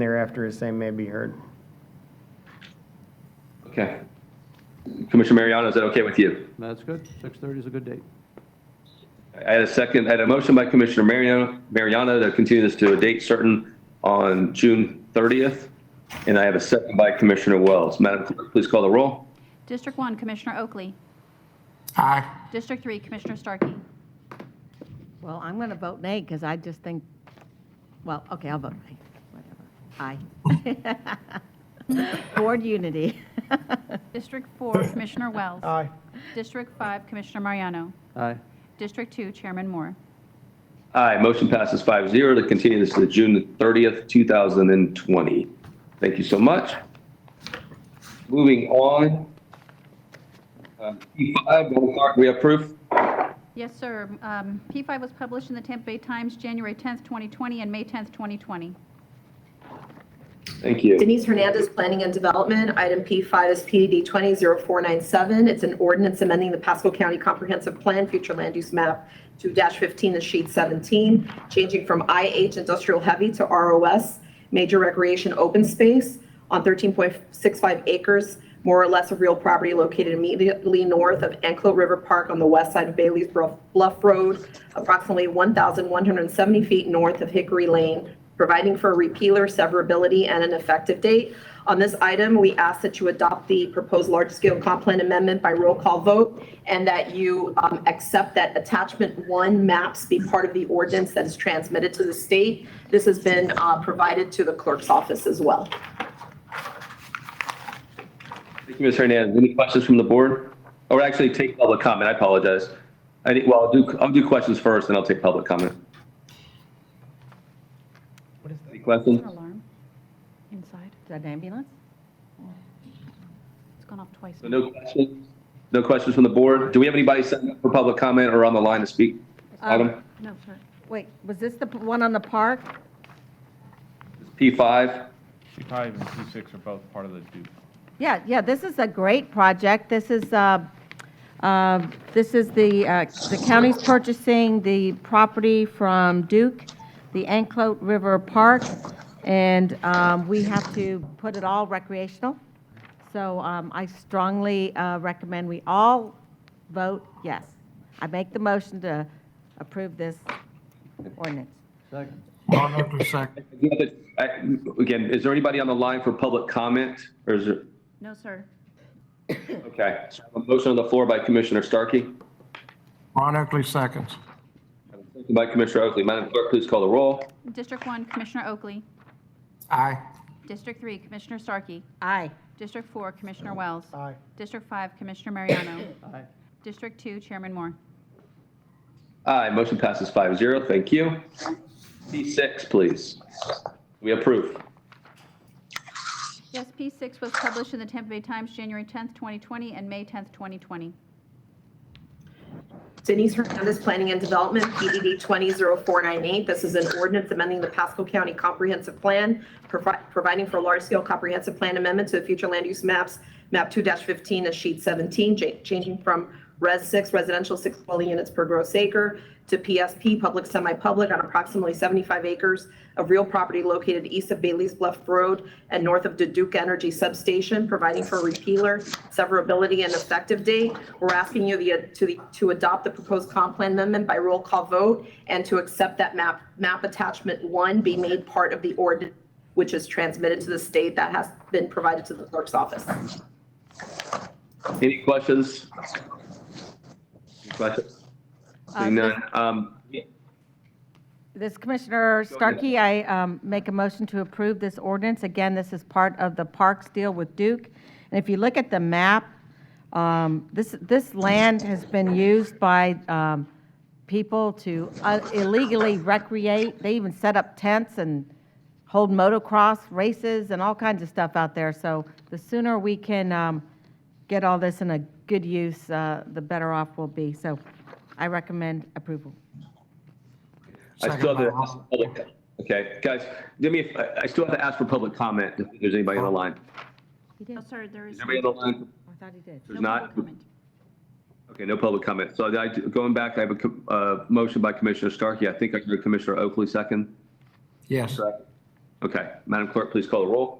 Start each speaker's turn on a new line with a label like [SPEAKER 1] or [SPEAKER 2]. [SPEAKER 1] thereafter as they may be heard.
[SPEAKER 2] Okay. Commissioner Mariano, is that okay with you?
[SPEAKER 3] That's good. 6:30 is a good date.
[SPEAKER 2] I had a second, I had a motion by Commissioner Mariano, Mariano to continue this to a date certain on June 30th. And I have a second by Commissioner Wells. Madam Clerk, please call the roll.
[SPEAKER 4] District 1, Commissioner Oakley.
[SPEAKER 5] Aye.
[SPEAKER 4] District 3, Commissioner Starkey.
[SPEAKER 6] Well, I'm going to vote nay because I just think, well, okay, I'll vote nay, whatever. Aye. Board unity.
[SPEAKER 4] District 4, Commissioner Wells.
[SPEAKER 1] Aye.
[SPEAKER 4] District 5, Commissioner Mariano.
[SPEAKER 3] Aye.
[SPEAKER 4] District 2, Chairman Moore.
[SPEAKER 2] Aye, motion passes 5-0 to continue this to the June 30th, 2020. Thank you so much. Moving on. Uh, P5, Madam Clerk, we approve?
[SPEAKER 4] Yes, sir. Um, P5 was published in the Tampa Bay Times, January 10th, 2020, and May 10th, 2020.
[SPEAKER 2] Thank you.
[SPEAKER 7] Denise Hernandez, Planning and Development. Item P5 is PED 200497. It's an ordinance amending the Pasco County Comprehensive Plan Future Land Use Map 2-15 in sheet 17, changing from IH Industrial Heavy to ROS Major Recreation Open Space on 13.65 acres, more or less of real property located immediately north of Anklo River Park on the west side of Bailey's Bluff Bluff Road, approximately 1,170 feet north of Hickory Lane, providing for repealer severability and an effective date. On this item, we ask that you adopt the proposed large-scale comp plan amendment by roll call vote and that you um, accept that attachment one maps be part of the ordinance that is transmitted to the state. This has been uh, provided to the clerk's office as well.
[SPEAKER 2] Thank you, Ms. Hernandez. Any questions from the board? Or actually, take public comment, I apologize. I think, well, I'll do, I'll do questions first, and I'll take public comment. Any
[SPEAKER 4] Is
[SPEAKER 2] questions?
[SPEAKER 4] there an alarm inside?
[SPEAKER 6] Is that an ambulance?
[SPEAKER 4] It's gone off twice.
[SPEAKER 2] So no questions? No questions from the board? Do we have anybody signed up for public comment or on the line to speak? Item
[SPEAKER 4] No, sir.
[SPEAKER 6] Wait, was this the p- one on the park?
[SPEAKER 2] P5?
[SPEAKER 8] P5 and P6 are both part of the Duke
[SPEAKER 6] Yeah, yeah, this is a great project. This is, uh, uh, this is the, uh, the county's purchasing the property from Duke, the Anklote River Park, and um, we have to put it all recreational. So um, I strongly uh, recommend we all vote yes. I make the motion to approve this ordinance.
[SPEAKER 3] Second.
[SPEAKER 5] Monmouth is second.
[SPEAKER 2] I- Again, is there anybody on the line for public comment? Or is there,
[SPEAKER 4] No, sir.
[SPEAKER 2] okay. So I have A motion on the floor by Commissioner Starkey,
[SPEAKER 5] Ron Oakley seconds.
[SPEAKER 2] second by Commissioner Oakley. Madam Clerk, please call the roll.
[SPEAKER 4] District 1, Commissioner Oakley.
[SPEAKER 5] Aye.
[SPEAKER 4] District 3, Commissioner Starkey.
[SPEAKER 6] Aye.
[SPEAKER 4] District 4, Commissioner Wells.
[SPEAKER 1] Aye.
[SPEAKER 4] District 5, Commissioner Mariano.
[SPEAKER 3] Aye.
[SPEAKER 4] District 2, Chairman Moore.
[SPEAKER 2] Aye, motion passes 5-0. Thank you. P6, please. We approve.
[SPEAKER 4] Yes, P6 was published in the Tampa Bay Times, January 10th, 2020, and May 10th, 2020.
[SPEAKER 7] Denise Hernandez, Planning and Development, PDD 200498. This is an ordinance amending the Pasco County Comprehensive Plan, provi- providing for large-scale comprehensive plan amendment to the future land use maps, map 2-15 to sheet 17, cha- changing from Res 6 residential six dwelling units per gross acre to PSP public semi-public on approximately 75 acres of real property located east of Bailey's Bluff Road and north of the Duke Energy Substation, providing for repealer, severability, and effective date. We're asking you the- to the- to adopt the proposed comp plan amendment by roll call vote and to accept that map map attachment one be made part of the ordinance, which is transmitted to the state that has been provided to the clerk's office.
[SPEAKER 2] Any questions? Any questions? Seeing none. Um,
[SPEAKER 6] This Commissioner Starkey, I um, make a motion to approve this ordinance. Again, this is part of the Parks deal with Duke. And if you look at the map, um, this, this land has been used by um, people to uh, illegally recreate. They even set up tents and hold motocross races and all kinds of stuff out there. So the sooner we can um, get all this in a good use, uh, the better off we'll be. So I recommend approval.
[SPEAKER 2] I still have
[SPEAKER 5] Second by Ron.
[SPEAKER 2] to, okay, guys, give me, I I still have to ask for public comment if there's anybody on the line.
[SPEAKER 6] He did.
[SPEAKER 4] No,
[SPEAKER 6] I
[SPEAKER 4] sir, Oh, there
[SPEAKER 2] Is
[SPEAKER 4] is.
[SPEAKER 2] there anybody on the line?
[SPEAKER 6] thought he did.
[SPEAKER 2] There's
[SPEAKER 4] no
[SPEAKER 2] not?
[SPEAKER 4] public comment.
[SPEAKER 2] Okay, no public comment. So I, going back, I have a, co- uh, motion by Commissioner Starkey. I think I heard Commissioner Oakley second.
[SPEAKER 5] Yes.
[SPEAKER 2] Okay, Madam Clerk, please call the roll.